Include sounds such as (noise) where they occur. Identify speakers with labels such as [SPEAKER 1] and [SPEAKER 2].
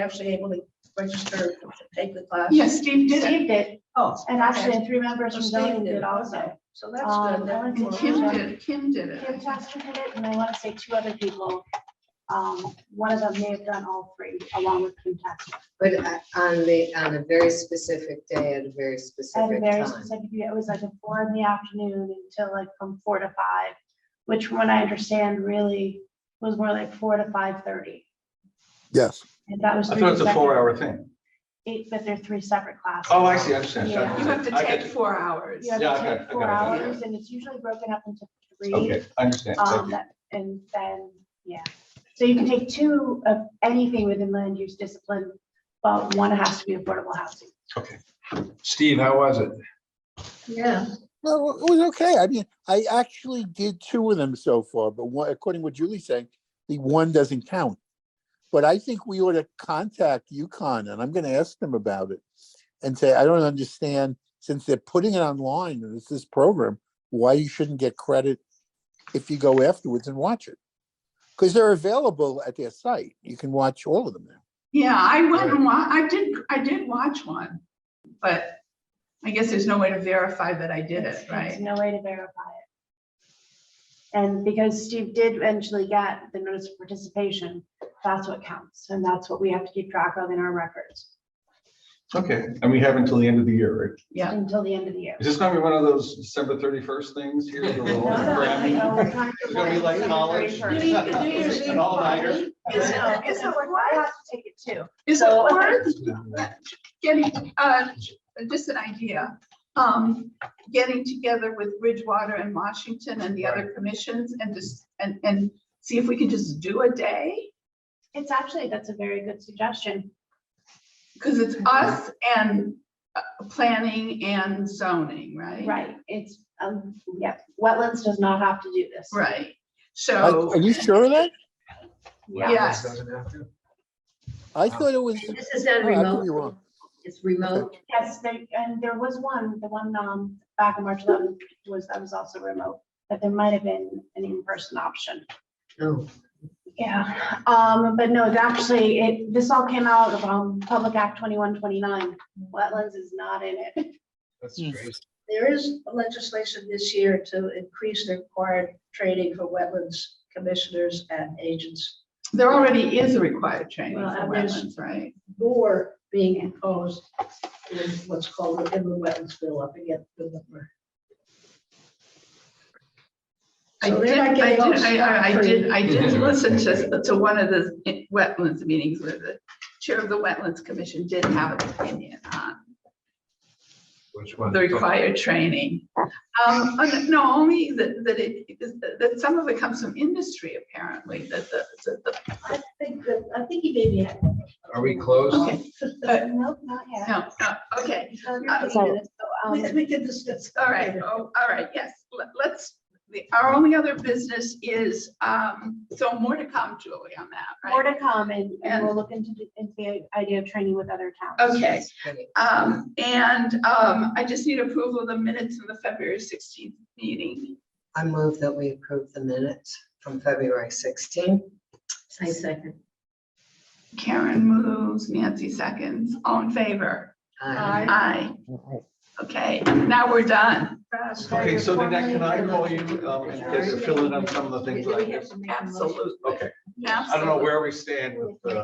[SPEAKER 1] actually able to register to take the class?
[SPEAKER 2] Yes, Steve did it.
[SPEAKER 3] Steve did,
[SPEAKER 1] Oh,
[SPEAKER 3] and actually three members from
[SPEAKER 1] Steve
[SPEAKER 3] zoning
[SPEAKER 1] did,
[SPEAKER 3] did also.
[SPEAKER 1] okay. so that's
[SPEAKER 3] Um,
[SPEAKER 1] good. That
[SPEAKER 3] and
[SPEAKER 2] And
[SPEAKER 1] means-
[SPEAKER 2] Kim did, Kim did
[SPEAKER 3] Kim
[SPEAKER 2] it.
[SPEAKER 3] Tester did it, and I want to say two other people. Um, one of them may have done all three along with Kim Tester.
[SPEAKER 4] But uh, on the, on a very specific day at a very
[SPEAKER 3] At a
[SPEAKER 4] specific
[SPEAKER 3] very
[SPEAKER 4] time.
[SPEAKER 3] specific, it was like a four in the afternoon until like from four to five, which from what I understand really was more like four to five thirty.
[SPEAKER 5] Yes,
[SPEAKER 3] And that was.
[SPEAKER 6] I
[SPEAKER 3] three
[SPEAKER 6] thought it's a
[SPEAKER 3] separate-
[SPEAKER 6] four-hour thing.
[SPEAKER 3] Eight, but they're three separate classes.
[SPEAKER 6] Oh, I see, I understand.
[SPEAKER 3] Yeah.
[SPEAKER 2] You have to
[SPEAKER 6] I got
[SPEAKER 2] take
[SPEAKER 6] you.
[SPEAKER 2] four hours.
[SPEAKER 3] You have
[SPEAKER 6] Yeah, I
[SPEAKER 3] to
[SPEAKER 6] got-
[SPEAKER 3] take
[SPEAKER 6] I
[SPEAKER 3] four
[SPEAKER 6] got
[SPEAKER 2] it, yeah.
[SPEAKER 3] hours, and it's usually broken up into three.
[SPEAKER 6] Okay, I understand.
[SPEAKER 3] Um,
[SPEAKER 6] Thank you.
[SPEAKER 3] that, and then, yeah, so you can take two of anything within land use discipline, but one has to be affordable housing.
[SPEAKER 6] Steve, how was it?
[SPEAKER 1] Yeah,
[SPEAKER 5] no, it was okay. I mean, I actually did two of them so far, but one, according to what Julie's saying, the one doesn't count. But I think we ought to contact UConn and I'm gonna ask them about it and say, I don't understand, since they're putting it online and it's this program, why you shouldn't get credit if you go afterwards and watch it. Because they're available at their site. You can watch all of them now.
[SPEAKER 2] Yeah, I went and wa, I did, I did watch one, but I guess there's no way to verify that I did
[SPEAKER 3] It's-
[SPEAKER 2] it,
[SPEAKER 3] it's
[SPEAKER 2] right?
[SPEAKER 3] No way to verify it. And because Steve did eventually get the notice of participation, that's what counts, and that's what we have to keep track of in our records
[SPEAKER 6] Okay, and we have until the end of the year, right?
[SPEAKER 2] Yeah.
[SPEAKER 3] until the end of the year.
[SPEAKER 6] Is this gonna be one of those December thirty-first things here? the little
[SPEAKER 1] No, no,
[SPEAKER 6] Grammy?
[SPEAKER 1] no.
[SPEAKER 6] It's gonna be like college.
[SPEAKER 1] You need to do your
[SPEAKER 6] An all-nighter.
[SPEAKER 3] It's not, it's not, I have to take it too.
[SPEAKER 2] Is it
[SPEAKER 3] So-
[SPEAKER 2] worth getting, uh, just an idea, um, getting together with Bridgewater and Washington and the other commissions and just, and, and see if we can just do a day?
[SPEAKER 3] It's actually, that's a very good suggestion.
[SPEAKER 2] Because it's us and uh, planning and zoning, right?
[SPEAKER 3] Right, it's, um, yeah, wetlands does not have to do this.
[SPEAKER 2] Right,
[SPEAKER 5] Are
[SPEAKER 2] so,
[SPEAKER 5] are you sure of that?
[SPEAKER 2] yes.
[SPEAKER 5] I thought it was,
[SPEAKER 1] this is
[SPEAKER 5] Oh, I
[SPEAKER 1] not
[SPEAKER 5] could be
[SPEAKER 1] remote,
[SPEAKER 5] wrong.
[SPEAKER 1] it's remote.
[SPEAKER 3] Yes, they, and there was one, the one, um, back in March eleventh was, that was also remote, but there might have been an in-person option.
[SPEAKER 4] Oh,
[SPEAKER 3] Yeah, um, but no, it actually, it, this all came out of, um, Public Act twenty-one, twenty-nine. Wetlands is not in it.
[SPEAKER 6] That's
[SPEAKER 5] Hmm.
[SPEAKER 6] great.
[SPEAKER 1] There is legislation this year to increase the required training for wetlands commissioners and agents.
[SPEAKER 2] There already is a required training for
[SPEAKER 1] Well, and there's-
[SPEAKER 2] wetlands, right?
[SPEAKER 1] More being imposed in what's called the inland wetlands bill up against the number.
[SPEAKER 2] I
[SPEAKER 1] So
[SPEAKER 2] did,
[SPEAKER 1] they're
[SPEAKER 2] I
[SPEAKER 1] not
[SPEAKER 2] did,
[SPEAKER 1] getting all
[SPEAKER 2] I- I did, I did
[SPEAKER 6] scot-free.
[SPEAKER 2] listen to, to one of the wetlands meetings where the chair of the wetlands commission did have an opinion on
[SPEAKER 6] Which one?
[SPEAKER 2] the required training. Um, and no, only that, that it, that some of it comes from industry apparently, that the, that the,
[SPEAKER 1] I think that, I think he maybe. had-
[SPEAKER 6] Are we closed?
[SPEAKER 2] Okay. (laughs) uh,
[SPEAKER 3] Nope, not yet.
[SPEAKER 2] no, no, okay,
[SPEAKER 1] Uh,
[SPEAKER 3] So, um,
[SPEAKER 1] We we can discuss.
[SPEAKER 2] all right, oh, all right, yes, let- let's, the- our only other business is, um, so more to come, Julie, on that,
[SPEAKER 3] More
[SPEAKER 2] right?
[SPEAKER 3] to come and, and
[SPEAKER 2] And-
[SPEAKER 3] we'll look into, the- into the idea of training with other towns.
[SPEAKER 2] Okay,
[SPEAKER 4] okay.
[SPEAKER 2] Um, and, um, I just need approval of the minutes in the February sixteenth meeting.
[SPEAKER 4] I move that we approve the minutes from February 16.
[SPEAKER 1] I second.
[SPEAKER 2] Karen moves, Nancy seconds, all in favor?
[SPEAKER 4] Aye.
[SPEAKER 2] Aye. Okay, now we're done.
[SPEAKER 6] Okay, so then that, can I call you, um, and get you fill in on some of the things that I
[SPEAKER 1] Do we have
[SPEAKER 6] missed?
[SPEAKER 1] to make a motion?
[SPEAKER 2] Absolutely.
[SPEAKER 6] Okay, I don't know where we stand with, uh,